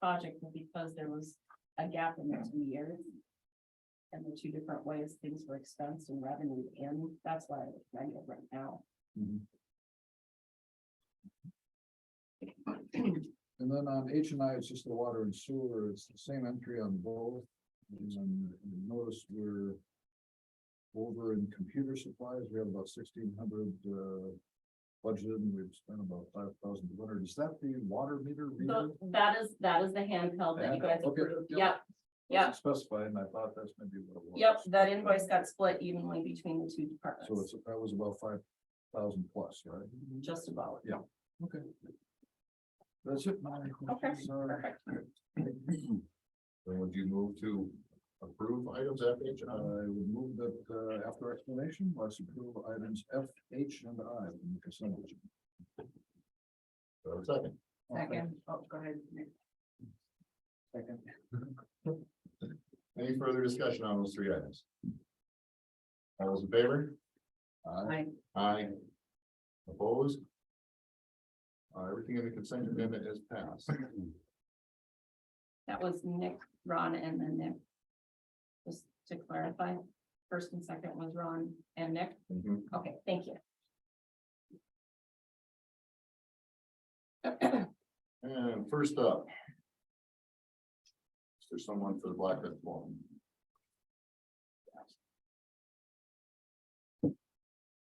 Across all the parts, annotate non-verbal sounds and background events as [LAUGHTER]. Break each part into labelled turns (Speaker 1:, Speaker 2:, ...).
Speaker 1: project, but because there was a gap in the two years. And the two different ways things were expensed and revenue in, that's why I'm trying it right now.
Speaker 2: Mhm. And then on H and I, it's just the water and sewer, it's the same entry on both. And you notice we're over in computer supplies, we have about sixteen hundred uh budgeted and we've spent about five thousand two hundred. Is that the water meter reader?
Speaker 1: So that is, that is the handheld that you guys
Speaker 2: Okay,
Speaker 1: approved,
Speaker 2: yep.
Speaker 1: yep, yep.
Speaker 2: Wasn't Specified, and I thought that's maybe what it was.
Speaker 1: Yep, that invoice got split evenly between the two
Speaker 2: So
Speaker 1: departments,
Speaker 2: it's, that was about five thousand plus, right?
Speaker 1: just about.
Speaker 2: Okay. That's it, my questions are. Then would you move to approve items F, H, and I? would move that, uh, after explanation, let's approve items F, H, and I in the consent agenda. Second.
Speaker 1: oh, go ahead.
Speaker 2: Second. Any further discussion on those three items? All those in favor? Aye.
Speaker 1: Aye.
Speaker 2: Aye. Opposed? Uh, everything in the consent agenda is passed.
Speaker 1: That was Nick, Ron, and then Nick. Just to clarify, first and second was Ron and Nick,
Speaker 2: Mhm.
Speaker 1: okay, thank you.
Speaker 2: And first up. Is there someone for the Black Earth Forum?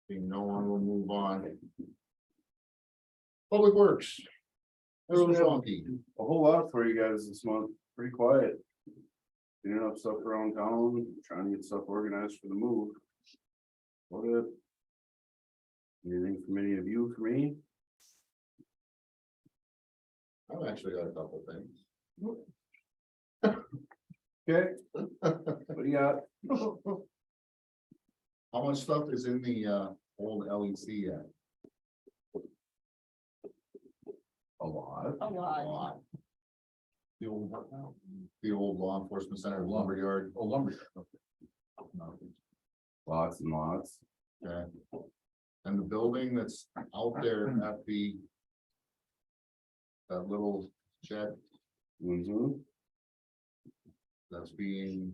Speaker 2: Being no one will move on. Public Works. Mr. Schwanke.
Speaker 3: a whole lot for you guys this month, pretty quiet. Cleaning up stuff around town, trying to get stuff organized for the move. What it? Anything from any of you for me?
Speaker 2: I've actually got a couple things.
Speaker 3: Okay. What do you got?
Speaker 2: How much stuff is in the uh old LEC yet?
Speaker 3: A lot.
Speaker 1: A
Speaker 2: A
Speaker 1: lot,
Speaker 2: lot. The old what now? The old law enforcement center lumberyard. Oh, lumberyard.
Speaker 3: Lots and lots.
Speaker 2: Okay. And the building that's out there at the. That little shed
Speaker 3: Mm-hmm.
Speaker 2: that's being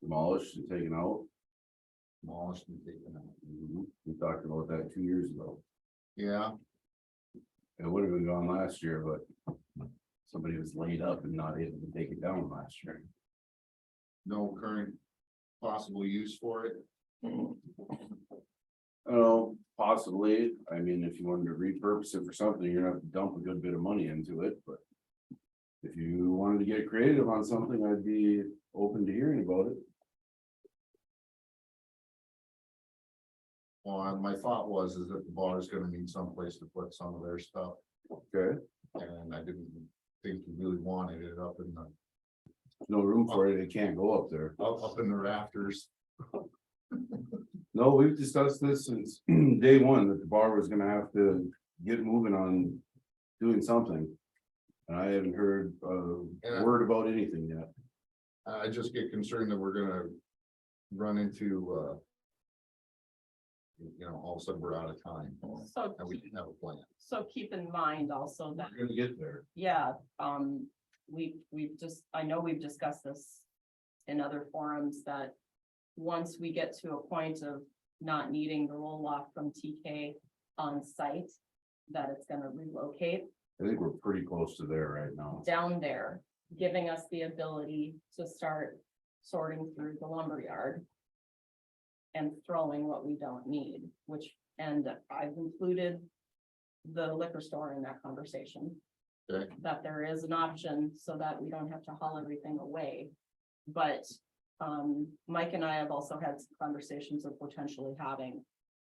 Speaker 3: Demolished and taken out.
Speaker 2: demolished and taken out.
Speaker 3: Mhm. We talked about that two years ago.
Speaker 2: Yeah,
Speaker 3: It would have been gone last year, but somebody was laid up and not able to take it down last year.
Speaker 2: no current possible use for it.
Speaker 3: Oh, possibly. I mean, if you wanted to repurpose it for something, you're gonna have to dump a good bit of money into it, but. If you wanted to get creative on something, I'd be open to hearing about it.
Speaker 2: Well, and my thought was is that the bar is gonna need someplace to put some of their stuff.
Speaker 3: Okay.
Speaker 2: And I didn't think you really wanted it up in the,
Speaker 3: No room for it. It can't go up there.
Speaker 2: up, up in the rafters.
Speaker 3: No, we've discussed this since [CLEARS THROAT] day one, that the bar was gonna have to get moving on doing something. And I haven't heard
Speaker 2: Yeah.
Speaker 3: a word about anything yet.
Speaker 2: I just get concerned that we're gonna run into, uh. You know, all of a sudden we're out of time
Speaker 1: so,
Speaker 2: and we didn't have a plan.
Speaker 1: so keep in mind also that,
Speaker 2: We're gonna get there.
Speaker 1: yeah, um, we, we've just, I know we've discussed this. In other forums that, once we get to a point of not needing the roll off from TK on site. That it's gonna relocate
Speaker 3: I think we're pretty close to there right now.
Speaker 1: down there, giving us the ability to start sorting through the lumberyard. And throwing what we don't need, which, and I've included the liquor store in that conversation.
Speaker 2: Okay.
Speaker 1: That there is an option so that we don't have to haul everything away. But, um, Mike and I have also had some conversations of potentially having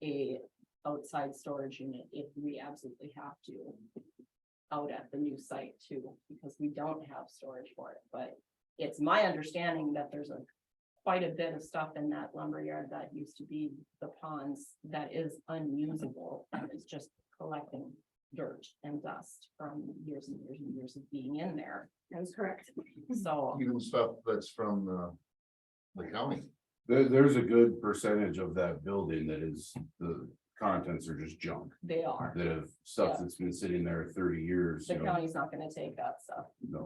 Speaker 1: a outside storage unit if we absolutely have to out at the new site too, because we don't have storage for it, but it's my understanding that there's a quite a bit of stuff in that lumberyard that used to be the ponds that is unusable, and it's just collecting dirt and dust from years and years and years of being in there. That's correct. So,
Speaker 2: Even stuff that's from, uh, the county.
Speaker 3: There, there's a good percentage of that building that is, the contents are just junk,
Speaker 1: they are,
Speaker 3: that have stuff that's been sitting there thirty years,
Speaker 1: the
Speaker 3: you know,
Speaker 1: county's not gonna take that stuff,
Speaker 3: no.